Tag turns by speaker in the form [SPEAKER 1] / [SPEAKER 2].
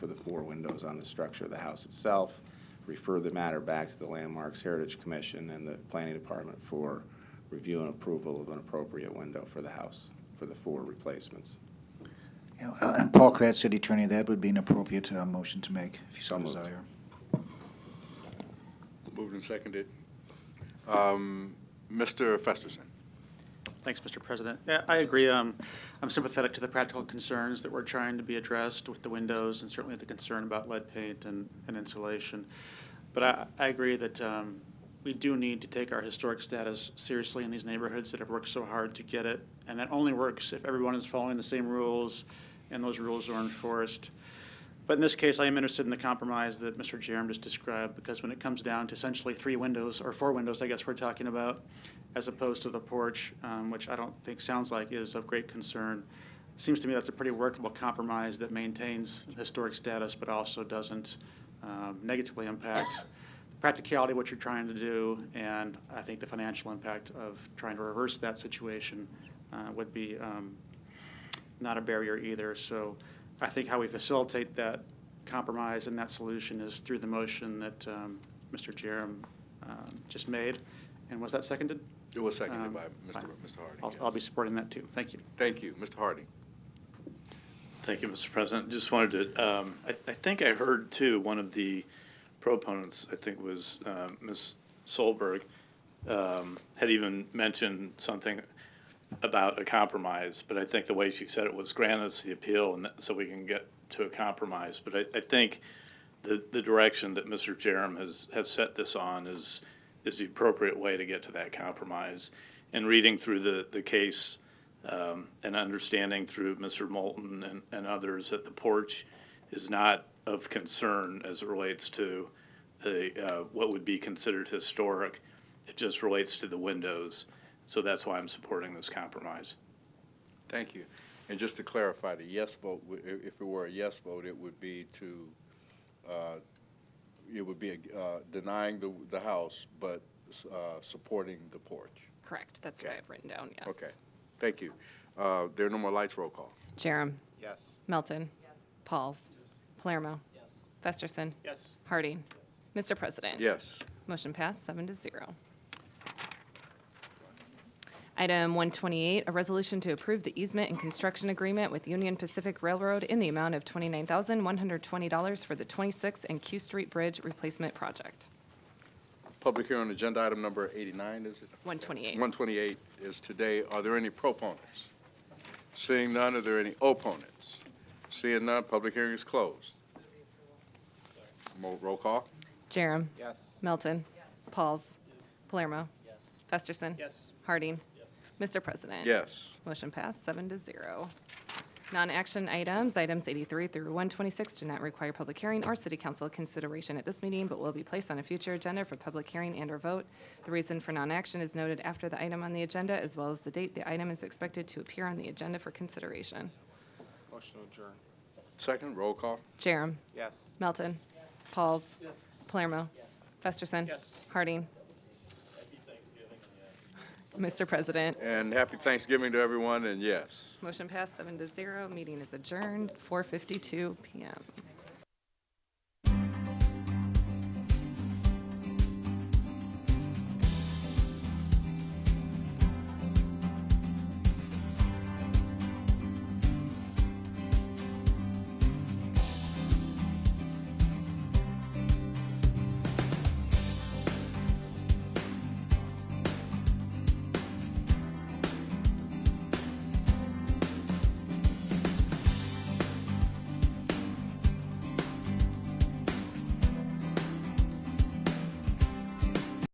[SPEAKER 1] for the four windows on the structure of the house itself, refer the matter back to the Landmarks Heritage Commission and the Planning Department for review and approval of an appropriate window for the house, for the four replacements.
[SPEAKER 2] Yeah, uh, And Paul Kratz, City Attorney, that would be an appropriate uh, motion to make, if you so
[SPEAKER 1] So moved.
[SPEAKER 2] desire.
[SPEAKER 3] Moved and seconded. Um, Mr. Festerson,
[SPEAKER 4] Thanks, Mr. President. Yeah, I agree. Um, I'm sympathetic to the practical concerns that were trying to be addressed with the windows and certainly the concern about lead paint and, and insulation. But I, I agree that um, we do need to take our historic status seriously in these neighborhoods that have worked so hard to get it. And that only works if everyone is following the same rules and those rules are enforced. But in this case, I am interested in the compromise that Mr. Jerem just described, because when it comes down to essentially three windows, or four windows, I guess we're talking about, as opposed to the porch, um, which I don't think sounds like is of great concern, seems to me that's a pretty workable compromise that maintains historic status, but also doesn't um, negatively impact the practicality of what you're trying to do, and I think the financial impact of trying to reverse that situation uh, would be um, not a barrier either. So I think how we facilitate that compromise and that solution is through the motion that um, Mr. Jerem um, just made. And was that seconded?
[SPEAKER 3] it was seconded
[SPEAKER 4] Um,
[SPEAKER 3] by Mr.
[SPEAKER 4] fine.
[SPEAKER 3] Mr. Harding.
[SPEAKER 4] I'll,
[SPEAKER 3] yes.
[SPEAKER 4] I'll be supporting that too. Thank you.
[SPEAKER 3] Thank you, Mr. Harding.
[SPEAKER 5] Thank you, Mr. President. Just wanted to, um, I I think I heard too, one of the proponents, I think was um, Ms. Solberg, um, had even mentioned something about a compromise, but I think the way she said it was grant us the appeal and that- so we can get to a compromise. But I- I think the the direction that Mr. Jerem has, has set this on is, is the appropriate way to get to that compromise. And reading through the, the case um, and understanding through Mr. Moulton and, and others that the porch is not of concern as it relates to the, uh, what would be considered historic. It just relates to the windows. So that's why I'm supporting this compromise.
[SPEAKER 3] Thank you. And just to clarify, the yes vote, w- i- if it were a yes vote, it would be to, uh, it would be uh, denying the, the house, but uh, supporting the porch.
[SPEAKER 6] Correct, that's what
[SPEAKER 3] Okay.
[SPEAKER 6] I've written down, yes.
[SPEAKER 3] Okay, thank you. Uh, There are no more lights, roll call.
[SPEAKER 6] Jerem.
[SPEAKER 1] Yes.
[SPEAKER 6] Melton. Pauls. Palermo. Festerson.
[SPEAKER 4] Yes.
[SPEAKER 6] Harding. Mr. President.
[SPEAKER 3] Yes.
[SPEAKER 6] Motion passed, seven to zero. Item 128, a resolution to approve the easement and construction agreement with Union Pacific Railroad in the amount of $29,120 for the 26th and Q Street Bridge Replacement Project.
[SPEAKER 3] Public hearing on agenda item number 89, is it?
[SPEAKER 6] 128.
[SPEAKER 3] 128 is today. Are there any proponents? Seeing none, are there any opponents? Seeing none, public hearing is closed. Mo- Roll call?
[SPEAKER 6] Jerem.
[SPEAKER 1] Yes.
[SPEAKER 6] Melton. Pauls. Palermo. Festerson. Harding. Mr. President.
[SPEAKER 3] Yes.
[SPEAKER 6] Motion passed, seven to zero. Non-action items, items 83 through 126 do not require public hearing or city council consideration at this meeting, but will be placed on a future agenda for public hearing and/or vote. The reason for non-action is noted after the item on the agenda, as well as the date the item is expected to appear on the agenda for consideration.
[SPEAKER 1] Motion adjourned.
[SPEAKER 3] Second, roll call?
[SPEAKER 6] Jerem.
[SPEAKER 1] Yes.
[SPEAKER 6] Melton. Pauls. Palermo. Festerson. Harding. Mr. President.
[SPEAKER 3] And happy Thanksgiving to everyone, and yes.
[SPEAKER 6] Motion passed, seven to zero. Meeting is adjourned, 4:52 PM.